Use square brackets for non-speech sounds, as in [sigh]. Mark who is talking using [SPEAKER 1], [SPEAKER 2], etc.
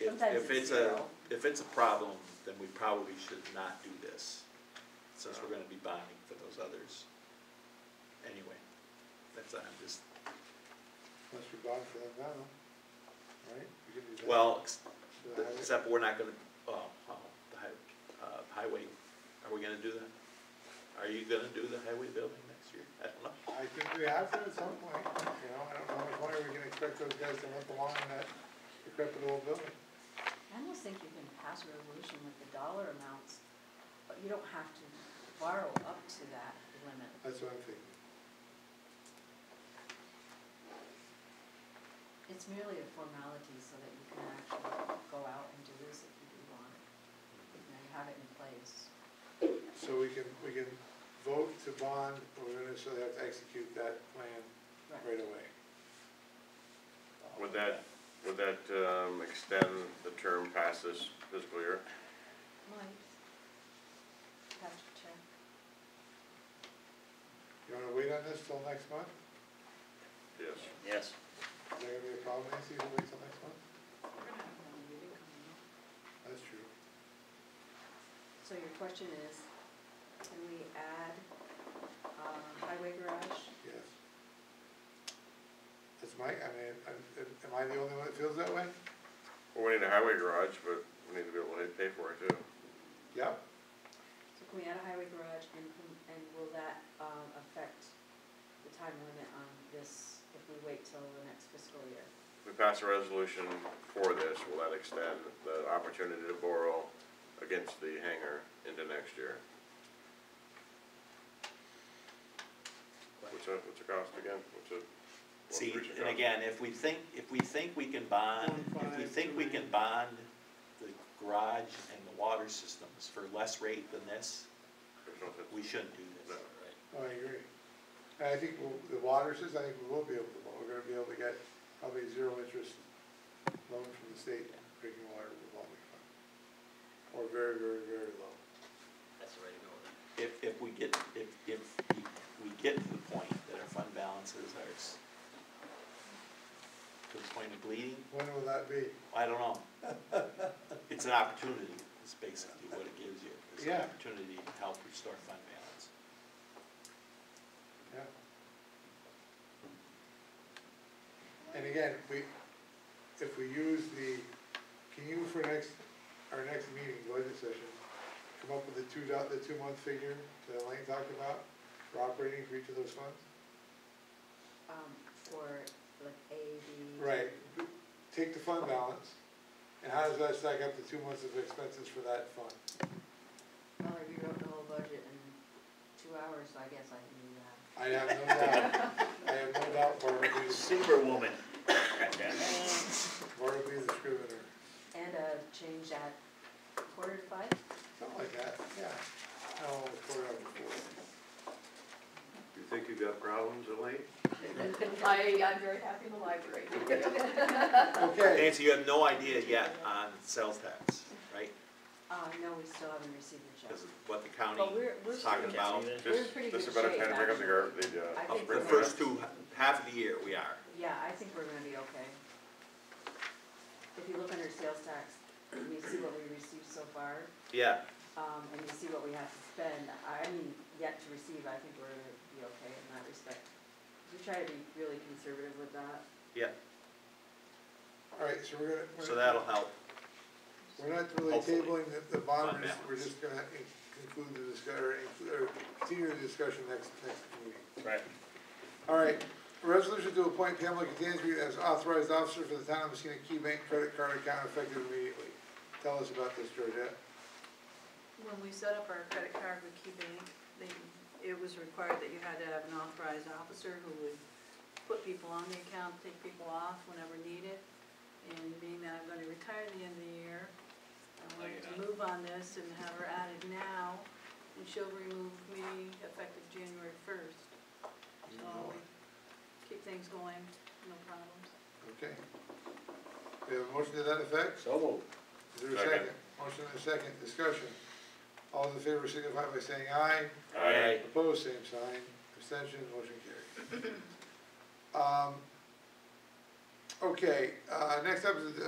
[SPEAKER 1] if,
[SPEAKER 2] Sometimes
[SPEAKER 1] if it's
[SPEAKER 2] it's
[SPEAKER 1] a,
[SPEAKER 2] zero.
[SPEAKER 1] if it's a problem, then we probably should not do this, since we're gonna be bonding for those others. Anyway, that's, I'm just,
[SPEAKER 3] Unless we bond for them now, right? We can do that.
[SPEAKER 1] well, ex-
[SPEAKER 3] For the highway.
[SPEAKER 1] except we're not gonna, oh, oh, the hi- uh, highway, are we gonna do that? Are you gonna do the highway building next year? I don't know.
[SPEAKER 3] I think we have to at some point, you know, I don't know how much longer we can expect those guys to limp along in that decrepit old building.
[SPEAKER 2] I almost think you can pass a resolution with the dollar amounts, but you don't have to borrow up to that limit.
[SPEAKER 3] That's what I'm thinking.
[SPEAKER 2] It's merely a formality so that you can actually go out and do this if you do want it. You know, you have it in place.
[SPEAKER 3] So we can, we can vote to bond, but we're gonna, so they have to execute that plan
[SPEAKER 2] Right.
[SPEAKER 3] right away.
[SPEAKER 4] Would that, would that, um, extend the term past this fiscal year?
[SPEAKER 2] Might. Have to check.
[SPEAKER 3] You wanna wait on this till next month?
[SPEAKER 4] Yes.
[SPEAKER 5] Yes.
[SPEAKER 3] Is there gonna be a problem, Nancy, if we wait till next month?
[SPEAKER 2] We're gonna have another meeting coming up.
[SPEAKER 3] That's true.
[SPEAKER 2] So your question is, can we add, um, highway garage?
[SPEAKER 3] Yes. That's my, I mean, I'm- am I the only one that feels that way?
[SPEAKER 4] Well, we need a highway garage, but we need to be able to pay for it too.
[SPEAKER 3] Yep.
[SPEAKER 2] So can we add a highway garage and, can- and will that, um, affect the time limit on this if we wait till the next fiscal year?
[SPEAKER 4] If we pass a resolution for this, will that extend the opportunity to borrow against the hangar into next year? What's it, what's the cost again? What's it? what's
[SPEAKER 1] See,
[SPEAKER 4] the recent
[SPEAKER 1] and
[SPEAKER 4] cost?
[SPEAKER 1] again, if we think, if we think we can bond, if we think we can bond the garage and the water systems for less rate than this,
[SPEAKER 4] There's no sense.
[SPEAKER 1] we shouldn't do this.
[SPEAKER 3] I agree. And I think we'll- the water says, I think we will be able to, we're gonna be able to get probably zero interest loan from the state, drinking water revolving fund. Or very, very, very low.
[SPEAKER 5] That's the way to go with it.
[SPEAKER 1] If, if we get, if, if we- we get to the point that our fund balances are s- to the point of bleeding,
[SPEAKER 3] When will that be?
[SPEAKER 1] I don't know.
[SPEAKER 2] [laughs]
[SPEAKER 1] It's an opportunity, is basically what it gives you. It's an
[SPEAKER 3] Yeah.
[SPEAKER 1] opportunity to help restore fund balance.
[SPEAKER 3] Yeah. And again, we, if we use the, can you for next, our next meeting, budget session, come up with the two dot, the two month figure that Elaine talked about for operating for each of those funds?
[SPEAKER 2] Um, for like A, B?
[SPEAKER 3] Right, take the fund balance, and how does that stack up to two months of expenses for that fund?
[SPEAKER 2] Well, I rewrote the whole budget in two hours, so I guess I can do that.
[SPEAKER 3] I have no doubt, I have no doubt Bartleby, is-
[SPEAKER 5] Superwoman.
[SPEAKER 3] Bartleby is a scrivener,
[SPEAKER 2] And, uh, change that quarter to five?
[SPEAKER 3] something like that, yeah. No, four out of four.
[SPEAKER 4] You think you've got problems, Elaine?
[SPEAKER 6] I, I'm very happy in the library.
[SPEAKER 3] Okay,
[SPEAKER 1] Nancy, you have no idea yet on sales tax, right?
[SPEAKER 2] Uh, no, we still haven't received the check.
[SPEAKER 1] Because what the county
[SPEAKER 2] But we're, we're.
[SPEAKER 1] is talking
[SPEAKER 2] pretty-
[SPEAKER 1] about.
[SPEAKER 2] We're in pretty
[SPEAKER 4] This
[SPEAKER 2] good
[SPEAKER 4] is about
[SPEAKER 2] shape,
[SPEAKER 4] time to bring up the gar,
[SPEAKER 2] actually.
[SPEAKER 4] the,
[SPEAKER 2] I
[SPEAKER 4] uh,
[SPEAKER 2] think
[SPEAKER 1] The
[SPEAKER 2] we're.
[SPEAKER 1] first two, half of the year, we are.
[SPEAKER 2] Yeah, I think we're gonna be okay. If you look under sales tax, and you see what we received so far,
[SPEAKER 1] Yeah.
[SPEAKER 2] um, and you see what we have to spend, I mean, yet to receive, I think we're gonna be okay in that respect. We try to be really conservative with that.
[SPEAKER 1] Yeah,
[SPEAKER 3] alright, so we're gonna. we're
[SPEAKER 1] so
[SPEAKER 3] gonna-
[SPEAKER 1] that'll help.
[SPEAKER 3] We're not really
[SPEAKER 1] Hopefully.
[SPEAKER 3] tabling the, the bond,
[SPEAKER 1] Fund
[SPEAKER 3] we're just- we're just gonna in- conclude the discuss, or, include- or continue the discussion next, next meeting.
[SPEAKER 5] Right.
[SPEAKER 3] All right, resolution to appoint Pamela Catanzaro as authorized officer for the town of Messina Key Bank credit card account effective immediately. Tell us about this, Georgette.
[SPEAKER 6] When we set up our credit card with Key Bank, they, it was required that you had to have an authorized officer who would put people on the account, take people off whenever needed. And being that I'm gonna retire at the end of the year, I wanted to move on this and have her added now, and she'll remove me effective January first. So we keep things going, no problems.
[SPEAKER 3] Okay. We have a motion to that effect?
[SPEAKER 5] So moved.
[SPEAKER 3] Is there a
[SPEAKER 4] Second.
[SPEAKER 3] second? Motion and a second, discussion. All those in favor signify by saying aye.
[SPEAKER 1] Aye.
[SPEAKER 3] Opposed, same sign, abstention, motion carried. Um, Okay, uh, next up is the